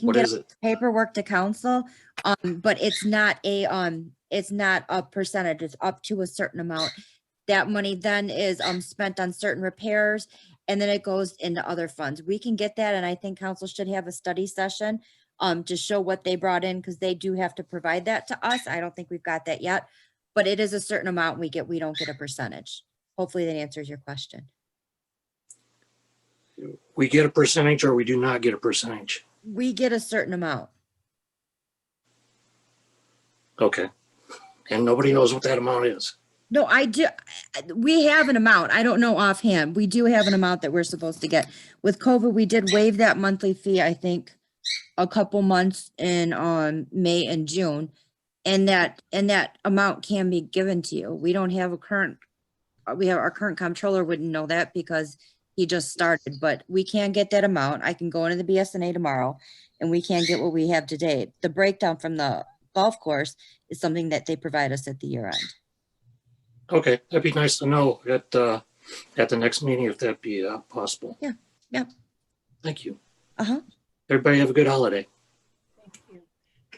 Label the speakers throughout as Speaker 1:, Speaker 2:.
Speaker 1: can
Speaker 2: What
Speaker 1: get
Speaker 2: is it?
Speaker 1: paperwork to council, um, but it's not a, um, it's not a percentage, it's up to a certain amount. That money then is, um, spent on certain repairs and then it goes into other funds. We can get that and I think council should have a study session, um, to show what they brought in, because they do have to provide that to us. I don't think we've got that yet. But it is a certain amount we get, we don't get a percentage. Hopefully that answers your question.
Speaker 2: We get a percentage or we do not get a percentage.
Speaker 1: We get a certain amount.
Speaker 2: Okay. And nobody knows what that amount is.
Speaker 1: No, I do, I- we have an amount. I don't know offhand. We do have an amount that we're supposed to get. With COVID, we did waive that monthly fee, I think, a couple months in, um, May and June. And that, and that amount can be given to you. We don't have a current, uh, we have, our current comptroller wouldn't know that because he just started, but we can get that amount. I can go into the BSNA tomorrow and we can get what we have today. The breakdown from the golf course is something that they provide us at the year end.
Speaker 2: Okay, that'd be nice to know at, uh, at the next meeting if that be uh, possible.
Speaker 1: Yeah, yeah.
Speaker 2: Thank you.
Speaker 1: Uh-huh.
Speaker 2: Everybody have a good holiday.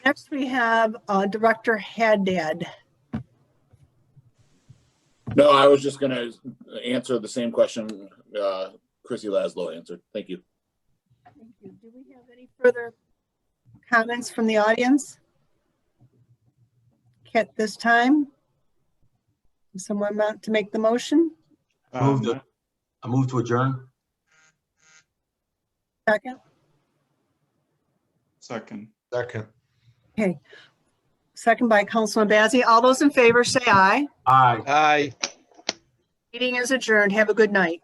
Speaker 3: Next, we have uh, Director Haddad.
Speaker 4: No, I was just gonna answer the same question uh, Chrissy Laszlo answered. Thank you.
Speaker 3: Thank you. Do we have any further comments from the audience? At this time? Does Someone want to make the motion?
Speaker 5: Move to, I move to adjourn.
Speaker 3: Second?
Speaker 6: Second.
Speaker 5: Second.
Speaker 3: Second by Councilman Bazey. All those in favor say aye.
Speaker 5: Aye.
Speaker 7: Aye.
Speaker 3: Meeting is adjourned. Have a good night.